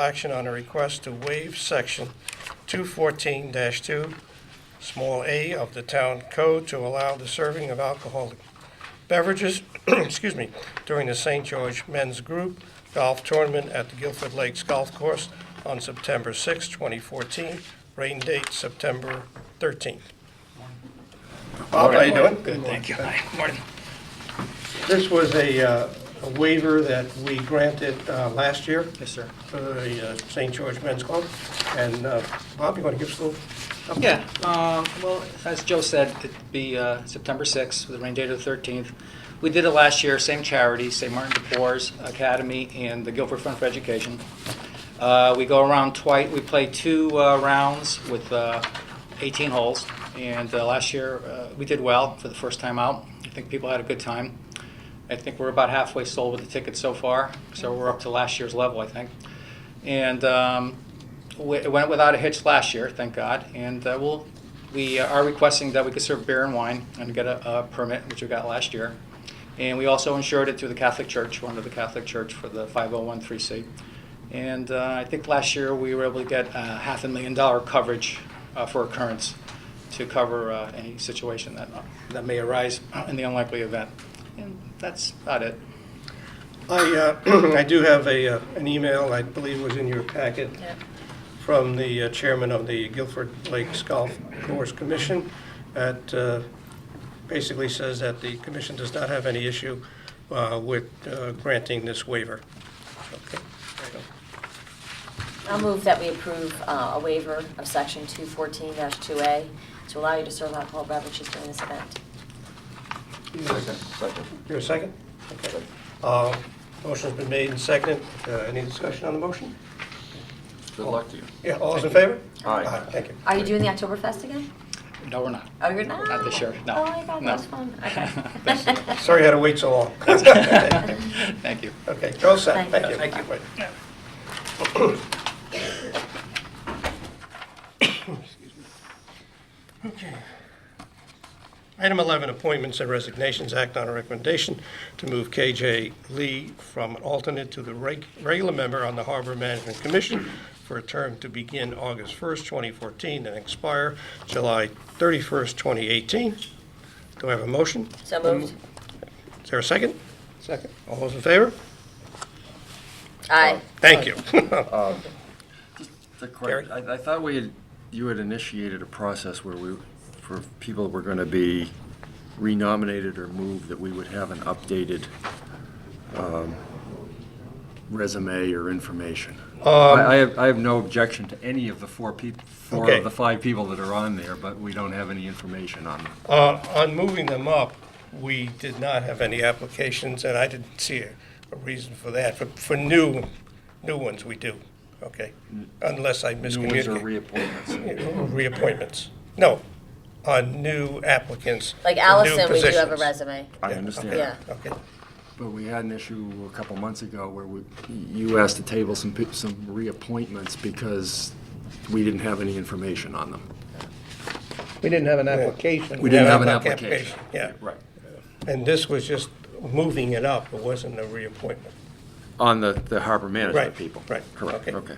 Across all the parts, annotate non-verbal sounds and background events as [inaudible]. Action on a request to waive section 214-2, small a of the town code to allow the serving of alcoholic beverages, [clears throat] excuse me, during the St. George Men's Group Golf Tournament at the Guilford Lakes Golf Course on September 6, 2014, rain date September 13th. Bob, how you doing? Good, thank you. Morning. This was a uh, a waiver that we granted uh, last year. Yes, sir. for the uh, St. George Men's Club. And uh, Bob, you want to give us a little? update? Yeah, um, well, as Joe said, it'd be uh, September 6th, with a rain date of the 13th. We did it last year, same charity, St. Martin de Porres Academy and the Guilford Fund for Education. Uh, We go around twice, we play two uh, rounds with uh, 18 holes, and uh, last year, uh, we did well for the first time out. I think people had a good time. I think we're about halfway sold with the tickets so far, so we're up to last year's level, I think. And um, we- it went without a hitch last year, thank God. And uh, we'll, we are requesting that we could serve beer and wine and get a, a permit, which we got last year. And we also insured it through the Catholic Church, we're under the Catholic Church for the 5013C. And uh, I think last year we were able to get uh, half a million dollar coverage uh, for occurrence to cover uh, any situation that, uh, that may arise [clears throat] in the unlikely event. And that's about it. I, uh, [clears throat] I do have a, uh, an email, I believe was in your packet, from the uh, chairman of the Guilford Lakes Golf Course Commission. That uh, basically says that the commission does not have any issue uh, with uh, granting this waiver. Okay. I'll move that we approve uh, a waiver of section 214-2A to allow you to serve alcohol beverages during this event. Here a second? Okay. Uh, Motion's been made and seconded. Uh, Any discussion on the motion? Good luck to you. Yeah, all those in favor? Aye. Thank you. Are you doing the Oktoberfest again? No, we're not. Oh, [laughs] you're not? Not this year, no. Oh, my God, No. that's [laughs] fun. Okay. This year. [laughs] Sorry you had to wait so [laughs] long. Thank you. Okay, go set, Thank thank you. you. Thank you. [coughs] Okay. Item 11, appointments and resignations, act on a recommendation to move KJ Lee from an alternate to the reg- regular member on the Harbor Management Commission for a term to begin August 1st, 2014, and expire July 31st, 2018. Do I have a motion? So moved. Is there a second? Second. All those in favor? Aye. Thank you. [laughs] The correct- I I thought we, had- you had initiated a process where we, for people who were going to be renominated or moved, that we would have an updated um, resume or information. Um, I I have, I have no objection to any of the four people, four Okay. of the five people that are on there, but we don't have any information on them. Uh, On moving them up, we did not have any applications, and I didn't see a a reason for that. For- For new, new ones, we do, okay? Unless I New ones or miscommunicate. reappointments. Reappointments. No, on new applicants. Like for new Allison, we do have a positions. resume. I Yeah, understand. okay, Yeah. Okay. But we had an issue a couple months ago where we, you asked to table some, pe- some reappointments because we didn't have any information on them. We didn't have an application. We didn't Yeah, have an like application. Yeah, Right. and this was just moving it up, it wasn't a reappointment. On the, the harbor management Right, people. right, Correct, okay. okay.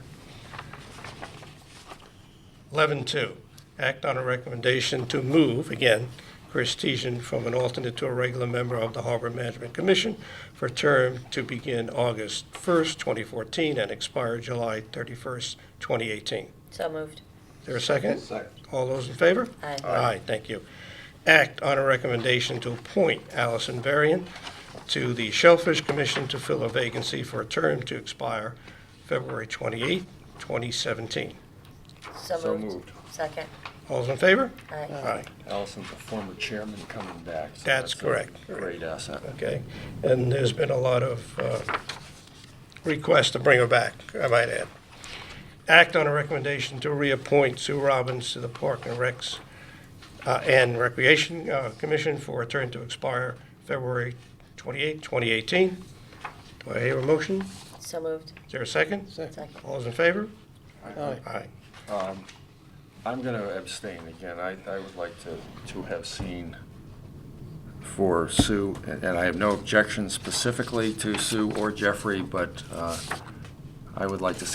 11.2, act on a recommendation to move, again, Chris Teason from an alternate to a regular member of the Harbor Management Commission for term to begin August 1st, 2014, and expire July 31st, 2018. So moved. Is there a second? Second. All those in favor? Aye. Aye, thank you. Act on a recommendation to appoint Allison Varian to the Shellfish Commission to fill a vacancy for a term to expire February 28th, 2017. So moved. Second. All those in favor? Aye. Aye. Allison's a former chairman coming back. so That's a correct. Great asset. okay? And there's been a lot of uh, requests to bring her back, I might add. Act on a recommendation to reappoint Sue Robbins to the Park and Recs uh, and Recreation uh, Commission for a term to expire February 28, 2018. Do I hear a motion? Is So moved. there a second? Second. All those in favor? Aye. Aye. I'm going to abstain again. I, I would like to, to have seen for Sue, and and I have no objection specifically to Sue or Jeffrey, but uh, I would like to see